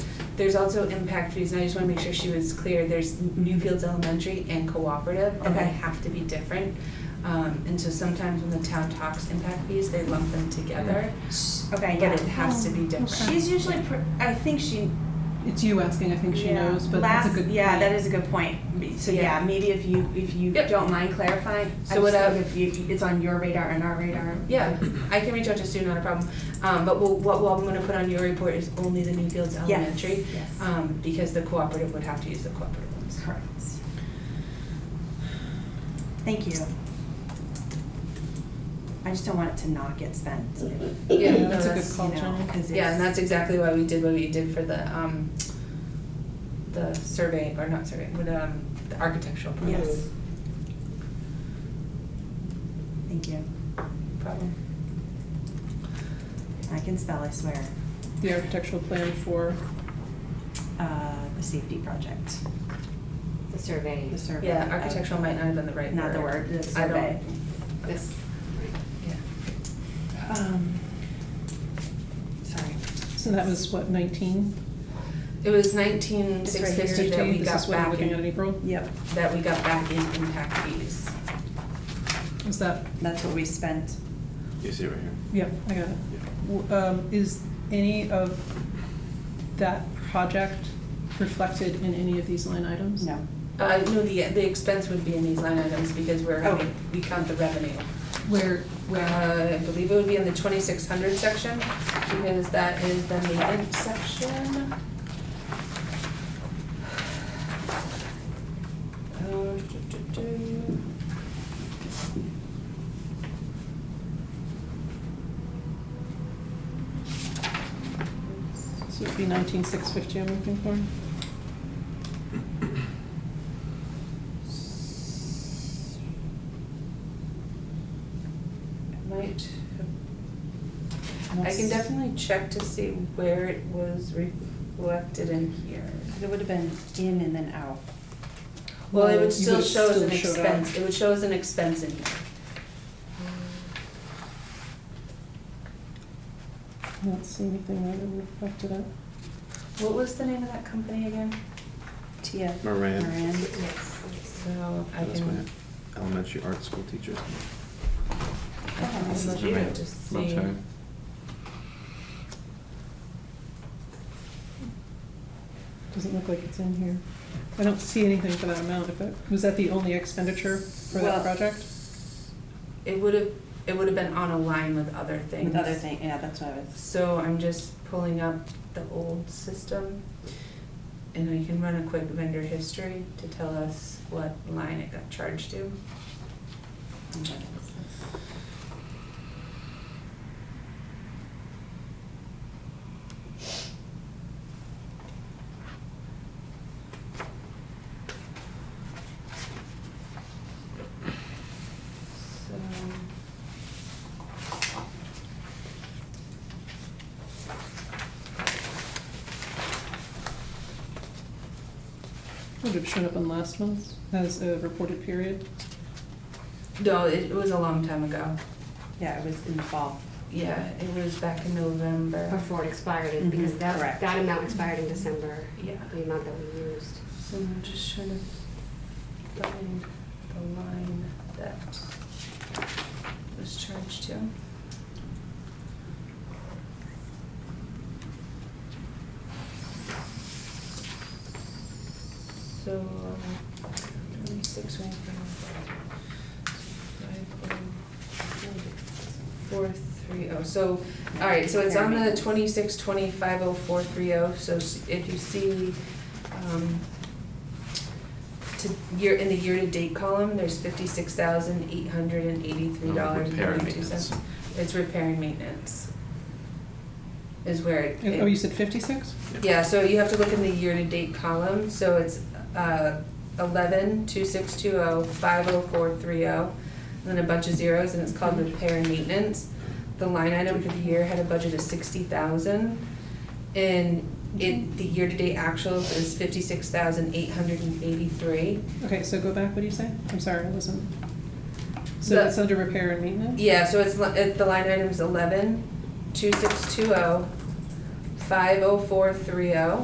There's also impact fees, and I just wanna make sure she was clear, there's Newfields Elementary and Cooperative, and they Okay. have to be different. Um, and so sometimes when the town talks impact fees, they lump them together, Okay, but yeah. it has to be different. She's usually, pr- I think she. It's you asking, I think she yeah. knows, but Last, that's a good Yeah, point. that is a good point. M- So Yeah. yeah, maybe if you if you Yep. don't mind clarifying, So I just what I- think if you, if it's on your radar and our radar. Yeah, I can reach out to Sue, not a problem, um, but we'll, what, what I'm gonna put on your report is only the Newfields Yes, Elementary, Yes. um, because the cooperative would have to use the cooperative ones. Correct. Thank you. I just don't want it to not get spent. Yeah, no, That's a good that's- call, you know, Jen. 'cause Yeah, and it's- that's exactly why we did what we did for the, um, the survey, or not survey, with, um, the architectural problem. Yes. Thank you. Problem. I can spell, I swear. The architectural plan for, Uh, the safety project, The survey. the survey. Yeah, of- architectural might not have been the right word. Not the word, the I don't- survey. This, Yeah. Um, Sorry. so that was what, nineteen? It was nineteen It's six right here, fifty that we This got is what we're back looking at in in, April? Yep, that we got back in impact fees. Is that, that's what we spent. You see it right here? yep, I got it. W- Um, is any of that project reflected in any of these line items? No. Uh, no, the, the expense would be in these line items because we're, Oh. having- we count the revenue. Where, Where, uh, I believe it would be in the twenty-six hundred section, because that is the maintenance section. Uh, do, do, do. so it'd be nineteen six fifty I'm looking for? It Might, I can definitely check to see where it was reflected in here. It would have been in and then out. Well, it Well, would you still would've show as still an showed up. expense, it would show as an expense in here. I don't see anything that would reflect it up. What was the name of that company again? Tia. Moran. Moran. So I That's my can, elementary art school teacher. I can This is look you. it to see. Website. Doesn't look like it's in here. I don't see anything for that amount. If that, was that the only expenditure for Well- that project? It would have, it would have been on a line with other things. With other thing, yeah, that's what I was. So I'm just pulling up the old system and I can run a quick vendor history to tell us what line it got charged to. So. Would have shown up in last month's as a reported period. No, it was a long time ago. Yeah, it was in the fall. Yeah, it was back in November. before it expired, it- because Mhm, that, correct. that amount expired in December, Yeah. the amount that we used. So I'm just trying to find the line that was charged to. So, um, twenty-six, Four, three, oh, so, all right, so it's on the twenty-six, twenty-five, oh, four, three, oh, so s- if you see, um, to, year, in the year-to-date column, there's fifty-six thousand, eight hundred and eighty-three dollars and Repair and thirty-two maintenance. cents. It's repair and maintenance. Is where it. Oh, you said fifty-six? Yeah, so you have to look in the year-to-date column, so it's uh, eleven, two six two oh, five oh four three oh, and then a bunch of zeros, and it's called repair and maintenance. The line item for the year had a budget of sixty thousand, and it, the year-to-date actuals is fifty-six thousand eight hundred and eighty-three. Okay, so go back, what do you say? I'm sorry, I wasn't. So The- that's under repair and maintenance? Yeah, so it's, li- it- the line item's eleven, two six two oh, five oh four three oh,